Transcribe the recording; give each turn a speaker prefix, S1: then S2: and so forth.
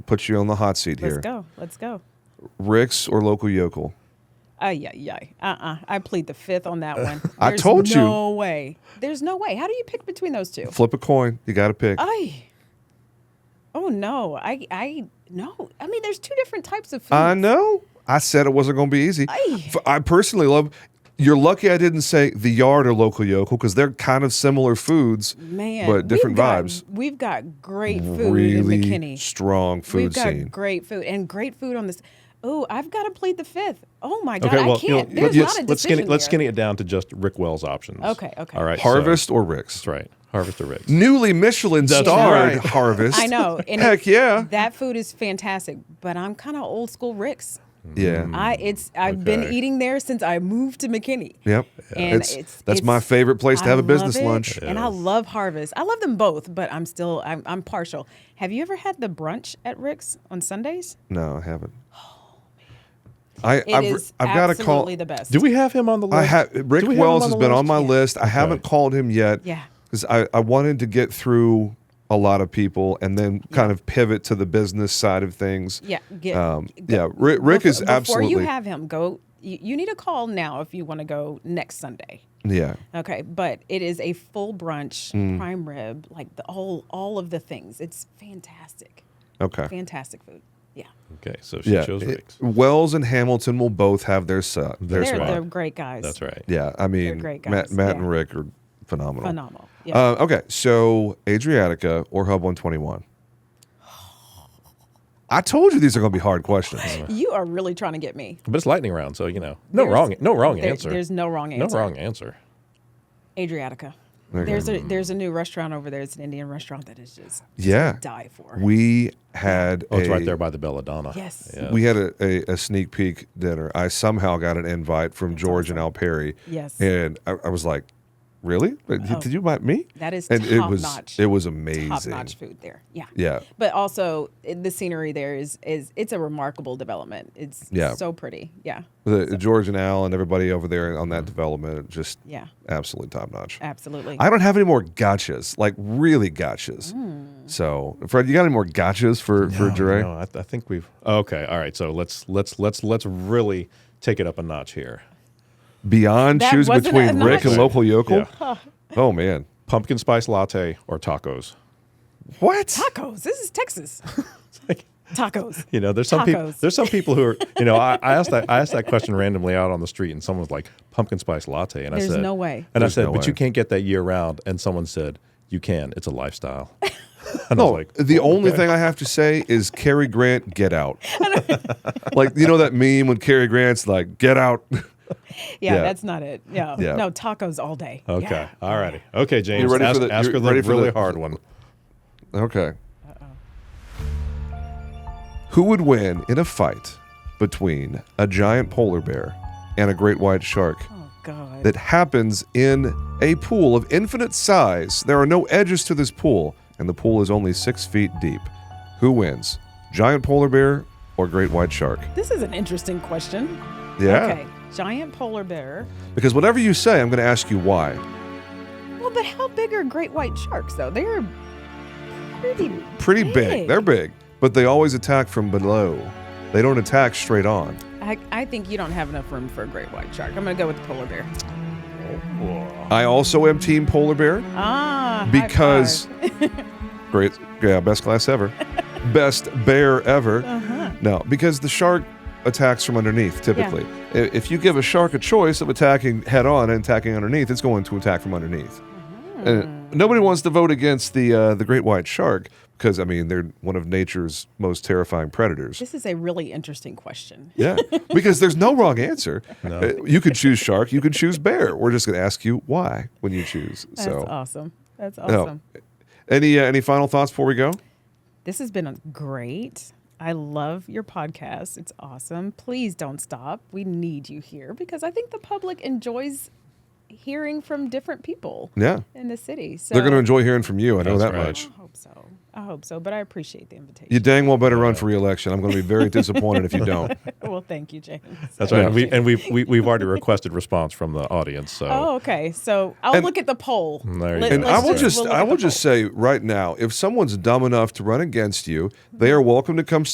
S1: put you on the hot seat
S2: Let's
S1: here.
S2: go. Let's go.
S1: Rick's or local yokel?
S2: Uh, yeah, yeah. Uh-uh. I plead the fifth on that one.
S1: I
S2: There's
S1: told you.
S2: No way. There's no way. How do you pick between those two?
S1: Flip a coin. You got to pick.
S2: I. Oh no. I I no. I mean, there's two different types of food.
S1: I know. I said it wasn't going to be easy.
S2: Aye.
S1: F- I personally love. You're lucky I didn't say the yard or local yokel because they're kind of similar foods,
S2: Man,
S1: but different
S2: we've got-
S1: vibes.
S2: We've got great food
S1: Really
S2: in McKinney.
S1: strong food
S2: we've got
S1: scene.
S2: great food and great food on this. Oh, I've got to plead the fifth. Oh my god,
S3: Okay, well,
S2: I can't.
S3: you know,
S2: There's
S3: let's,
S2: not a
S3: let's
S2: decision
S3: skinny, let's
S2: here.
S3: skinny it down to just Rick Wells options.
S2: Okay, okay.
S3: All right. so-
S1: Harvest or Rick's?
S3: that's right. Harvest or Rick.
S1: Newly Michelin
S3: That's
S1: starred
S3: right.
S1: Harvest.
S2: I know. And
S1: Heck
S2: it-
S1: yeah.
S2: That food is fantastic, but I'm kind of old school Rick's.
S1: Yeah.
S2: I it's I've been
S3: okay.
S2: eating there since I moved to McKinney.
S1: Mm, Yep.
S2: And
S1: It's-
S2: it's-
S1: that's my
S2: it's-
S1: favorite place to
S2: I
S1: have a
S2: love
S1: business
S2: it,
S1: lunch.
S2: And I love Harvest. I love them both, but I'm still I'm, I'm partial. Have you ever had the brunch at Rick's on Sundays?
S1: No, I haven't. I,
S2: Oh, It
S1: I've,
S2: is
S1: I've got to
S2: absolutely
S1: call.
S2: the best.
S3: Do we have him on the list?
S1: I have
S3: Do
S1: Rick
S3: we have him
S1: Wells
S3: on
S1: has
S3: the
S1: been
S3: list?
S1: on my list. I haven't
S3: Okay.
S1: called him yet.
S2: Yeah.
S1: Because I, I wanted to get through a lot of people and then kind of pivot to the business side of things.
S2: Yeah, get-
S1: um,
S2: go-
S1: yeah. Rick, Rick
S2: Befo-
S1: is absolutely.
S2: Before you have him go, you, you need a call now if you want to go next Sunday.
S1: yeah.
S2: Okay, but it is a full brunch,
S1: Mm.
S2: prime rib, like the whole all of the things. It's fantastic,
S1: Okay.
S2: fantastic food. Yeah,
S3: Okay, so she
S1: Yeah.
S3: chose
S1: It-
S3: Rick's.
S1: Wells and Hamilton will both have their set. Their
S2: they're
S1: spot.
S2: they're great guys.
S3: That's right.
S1: Yeah. I mean,
S2: great
S1: Matt,
S2: guys,
S1: Matt
S2: yeah.
S1: and Rick are phenomenal.
S2: Phenomenal. Yeah.
S1: Uh, okay, so Adriatica or Hub 121? I told you these are going to be hard questions.
S2: you are really trying to get me.
S3: But it's lightning round, so you know, no
S2: There's-
S3: wrong, no wrong
S2: there-
S3: answer.
S2: There's no wrong
S3: no
S2: answer.
S3: wrong answer.
S2: Adriatica.
S1: Okay.
S2: There's a there's a new restaurant over there. It's an Indian restaurant that is just
S1: Yeah.
S2: die for.
S1: We had
S3: Oh, it's
S1: a-
S3: right there by the Belladonna.
S2: Yes.
S3: Yeah.
S1: We had a, a, a sneak peek dinner. I somehow got an invite from George and Al Perry.
S2: Yes. Oh.
S1: And I, I was like, really? Like, Did you invite me?
S2: That is
S1: and it
S2: top
S1: was
S2: notch.
S1: it was amazing.
S2: top notch food there. Yeah.
S1: Yeah.
S2: But also i- the scenery there is is it's a remarkable development. It's
S1: Yeah.
S2: so pretty. Yeah.
S1: The, George and Al and everybody over there on
S3: Mm-hmm.
S1: that development just
S2: Yeah.
S1: absolutely top notch.
S2: Absolutely.
S1: I don't have any more gotchas, like really gotchas.
S2: Mm.
S1: So, Fred, you got any more gotchas for for
S3: No,
S1: Dre?
S3: Oh, no, I, I think we've. Okay, all right. So let's let's let's let's really take it up a notch here.
S1: Beyond
S2: That
S1: choose
S2: wasn't
S1: between
S2: a
S1: Rick and
S3: notch.
S1: local yokel.
S3: Yeah.
S1: Oh man,
S3: Pumpkin spice latte or tacos.
S1: what?
S2: tacos. This is Texas.
S3: Like,
S2: Tacos.
S3: you know, there's some people.
S2: Tacos.
S3: There's some people who are. You know, I, I asked that I asked that question randomly out on the street, and someone was like, "Pumpkin spice latte," and
S2: There's
S3: I said,
S2: no way.
S3: And
S1: There's
S3: I said,
S1: no
S3: "But you
S1: way.
S3: can't get that year round." And someone said, "You can. It's a lifestyle." and I
S1: No,
S3: was like,
S1: the only thing I have to say is Cary Grant, get out. like you know that meme when Cary Grant's like, get out.
S2: Yeah,
S1: Yeah.
S2: that's not it. No.
S1: Yeah.
S2: No, tacos all day.
S3: Okay.
S2: Yeah.
S3: All righty. Okay, James.
S1: ready for
S3: ask,
S1: the-
S3: ask
S1: you
S3: her the
S1: ready for
S3: really
S1: the-
S3: hard one.
S1: okay. Who would win in a fight between a giant polar bear and a great white shark?
S2: Oh god.
S1: that happens in a pool of infinite size. There are no edges to this pool, and the pool is only six feet deep. Who wins? Giant polar bear or great white shark?
S2: this is an interesting question.
S1: Yeah.
S2: Okay. Giant polar bear.
S1: Because whatever you say, I'm going to ask you why.
S2: Well, but how big are great white sharks though? They're pretty
S1: Pretty big. They're big, but they always attack from below. They don't attack straight on.
S2: I, I think you don't have enough room for a great white shark. I'm gonna go with the polar bear.
S1: I also am team polar bear
S2: Ah, high
S1: because
S2: five.
S1: great, yeah, best class ever, best bear ever.
S2: Uh-huh.
S1: No, because the shark attacks from underneath typically. I- If you give a shark a choice of attacking head on and attacking underneath, it's going to attack from underneath.
S2: Uh-huh.
S1: And nobody wants to vote against the uh, the great white shark because I mean they're one of nature's most terrifying predators.
S2: This is a really interesting question.
S1: Yeah, because there's no wrong answer. Uh, You could choose shark, you could choose bear. We're just going to ask you why when you choose.
S2: That's
S1: so,
S2: awesome. That's
S1: no.
S2: awesome.
S1: Any uh, any final thoughts before we go?
S2: This has been great. I love your podcast. It's awesome. Please don't stop. We need you here because I think the public enjoys hearing from different people
S1: Yeah.
S2: in the city. So
S1: They're going to enjoy hearing from you. I know
S3: That's
S1: that
S3: right.
S1: much.
S2: I hope so. I hope so. But I appreciate the invitation.
S1: You dang well better run for reelection. I'm going to be very disappointed if you don't.
S2: well, thank you, James.
S3: That's
S2: I
S3: right. And, we,
S2: appreciate
S3: and we've, we, we've already requested response from the audience. So
S2: it. oh, okay. So I'll
S1: And-
S2: look at the poll.
S3: There you go.
S1: And
S3: Let's
S1: I will
S3: just-
S1: just
S2: we'll look
S1: I
S2: at
S1: will
S2: the
S1: just
S2: poll. Mm-hmm.
S1: say right now, if someone's dumb enough to run against you, they are welcome to come